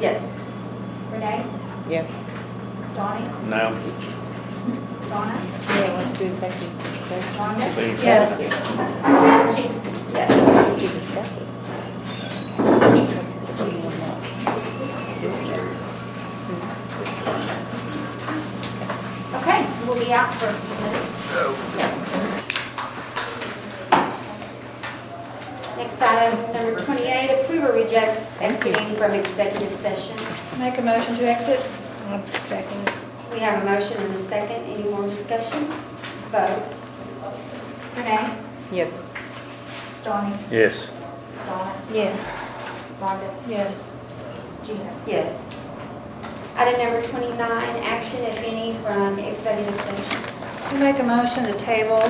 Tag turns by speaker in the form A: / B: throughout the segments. A: Yes.
B: Renee,
C: Yes.
B: Donnie,
D: No.
B: Donna,
C: Yeah, let's do executive session.
B: Rhonda,
D: Please.
A: Yes.
B: Chief.
A: Yes.
C: Did you discuss it? Because if you will not do it.
B: Okay, we'll be out for a few minutes. Next item, number 28, approve or reject exiting from executive session.
E: Make a motion to exit? Second.
B: We have a motion and a second. Any more discussion? Vote. Renee?
C: Yes.
B: Donnie?
D: Yes.
B: Donna?
E: Yes.
B: Rhonda?
E: Yes.
B: Gina? Yes. Item number 29, action, if any, from executive session.
E: We make a motion to table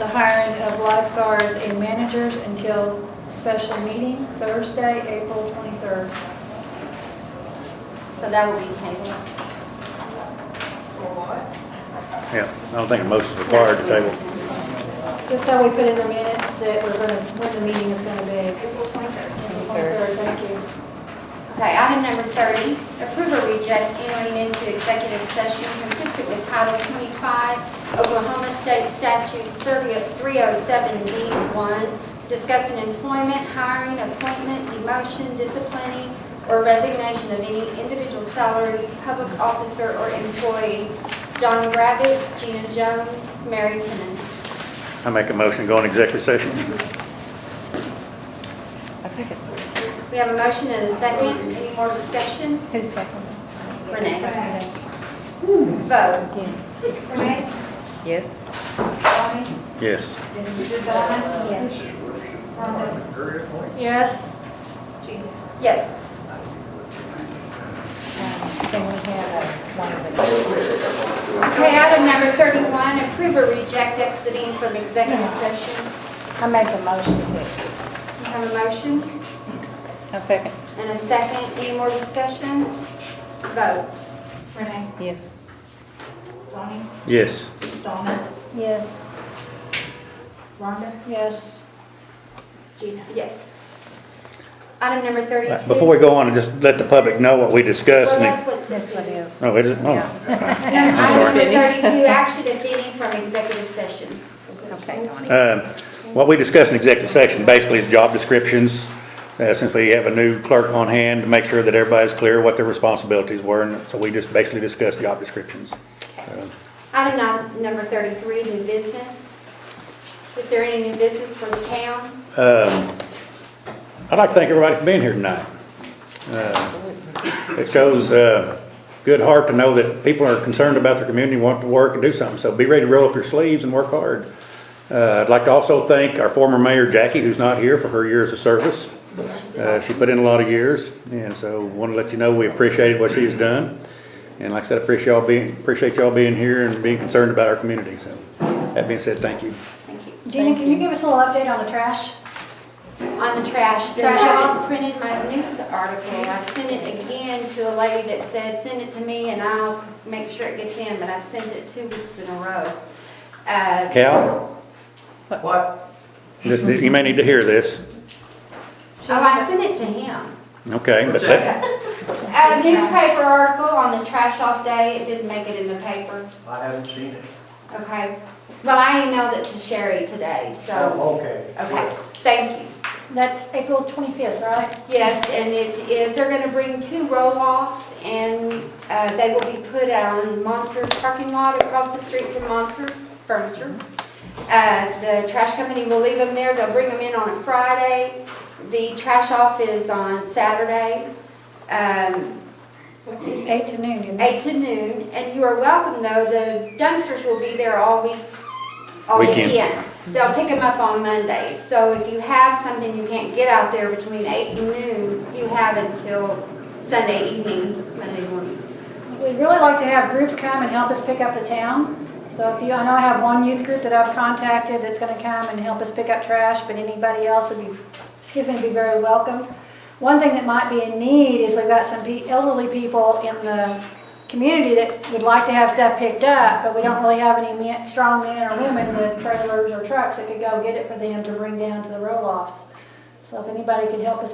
E: the hiring of lifeguards and managers until special meeting Thursday, April 23rd.
B: So that will be tabled.
D: Yeah, I don't think a motion's required to table.
E: Just so we put in the minutes that we're going to, when the meeting is going to be.
B: April 23rd.
E: 23rd, thank you.
B: Okay, item number 30, approve or reject entering into executive session consistent with Title 25 Oklahoma State Statutes 307D1, discussing employment, hiring, appointment, demotion, disciplining, or resignation of any individual salary, public officer, or employee. John Rabbit, Gina Jones, Mary Timmons.
D: I make a motion, to go in executive session.
C: A second.
B: We have a motion and a second. Any more discussion?
C: Who's second?
B: Renee. Vote.
C: Yeah.
B: Renee?
C: Yes.
D: Yes.
C: Yes.
E: Yes.
B: Yes.
C: Then we have uh, one of the.
B: Okay, item number 31, approve or reject exiting from executive session.
C: I make a motion to exit.
B: We have a motion
C: A second.
B: and a second. Any more discussion? Vote.
E: Renee?
C: Yes.
D: Yes.
E: Yes. Rhonda? Yes.
B: Yes. Item number 32.
D: Uh, Before we go on, just let the public know what we discussed
B: Well,
D: and
B: that's
D: it,
B: what this one is.
D: oh, is it? Oh.
B: Item number
C: Sorry.
B: 32, action if any from executive session.
C: Okay, Donnie.
D: Um, What we discussed in executive session basically is job descriptions, uh, since we have a new clerk on hand, to make sure that everybody's clear what their responsibilities were, and so we just basically discussed job descriptions.
B: Item num- number 33, new business. Is there any new business for the town?
D: I'd like to thank everybody for being here tonight. Uh, It shows uh, good heart to know that people are concerned about their community, want to work and do something, so be ready to roll up your sleeves and work hard. Uh, I'd like to also thank our former mayor Jackie, who's not here, for her years of service. Uh, She put in a lot of years, and so want to let you know we appreciated what she's done. And like I said, appreciate y'all being, appreciate y'all being here and being concerned about our community, so that being said, thank you.
B: Thank you.
E: Gina, can you give us a little update on the trash?
B: on the trash. Then
E: Trash.
B: I printed my news article, I sent it again to a lady that said, send it to me and I'll make sure it gets in, but I've sent it two weeks in a row. Uh,
D: Cal,
F: What?
D: this- you may need to hear this,
B: Oh, I sent it to him.
D: okay, but let,
B: A Uh, newspaper article on the trash off day, it didn't make it in the paper,
F: I haven't seen it.
B: okay? Well, I emailed it to Sherry today, so,
F: Oh, okay.
B: okay, thank you.
E: That's April 25th, right?
B: Yes, and it is, they're gonna bring two roll-offs, and uh, they will be put on Monsters parking lot across the street from Monsters Furniture. Uh, The trash company will leave them there, they'll bring them in on a Friday. The trash off is on Saturday, um,
E: Eight to noon, isn't it?
B: eight to noon, and you are welcome, though, the dumpsters will be there all week, all
D: Weekend.
B: weekend. They'll pick them up on Mondays, so if you have something you can't get out there between eight and noon, you have until Sunday evening, Monday morning.
E: We'd really like to have groups come and help us pick up the town. So if you, I know I have one youth group that I've contacted that's gonna come and help us pick up trash, but anybody else would be, excuse me, would be very welcome. One thing that might be in need is we've got some pe- elderly people in the community that would like to have stuff picked up, but we don't really have any men, strong men or women with trailers or trucks that could go get it for them to bring down to the roll-offs. So if anybody could help us with